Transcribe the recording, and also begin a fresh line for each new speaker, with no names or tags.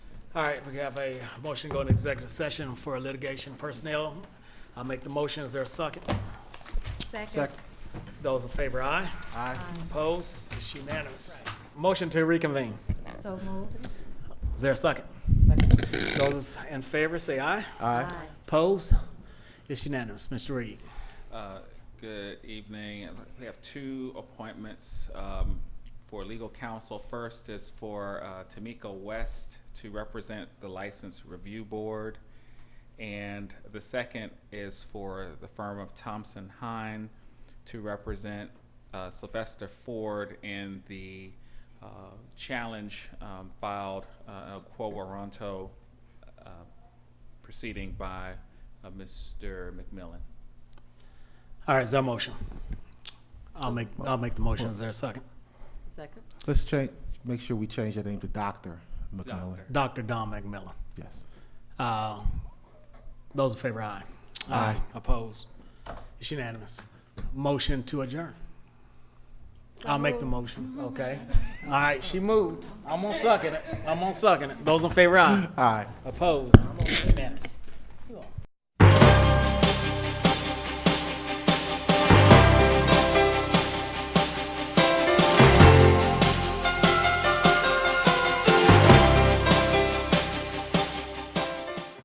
All right, we have a motion to go into executive session for litigation personnel. I'll make the motion. Is there a second?
Second.
Those in favor, aye.
Aye.
Opposed? It's unanimous. Motion to reconvene.
So moved.
Is there a second? Those in favor, say aye.
Aye.
Opposed? It's unanimous. Mr. Reed.
Uh, Good evening. We have two appointments um, for legal counsel. First is for uh, Tamika West to represent the License Review Board. And the second is for the firm of Thompson Hine to represent uh, Sylvester Ford in the uh, challenge um, filed, uh, Quo Warranto uh, proceeding by uh, Mr. McMillan.
All right, is there a motion? I'll make, I'll make the motion. Is there a second?
Second.
Let's change, make sure we change the name to Dr. McMillan.
Dr.
Doctor.
Don McMillan.
Yes.
Uh, Those in favor, aye.
Aye.
Opposed? It's unanimous. Motion to adjourn. I'll make the motion, okay? All right, she moved. I'm on sucking it. I'm on sucking it. Those in favor, aye.
Aye.
Opposed? Unanimous.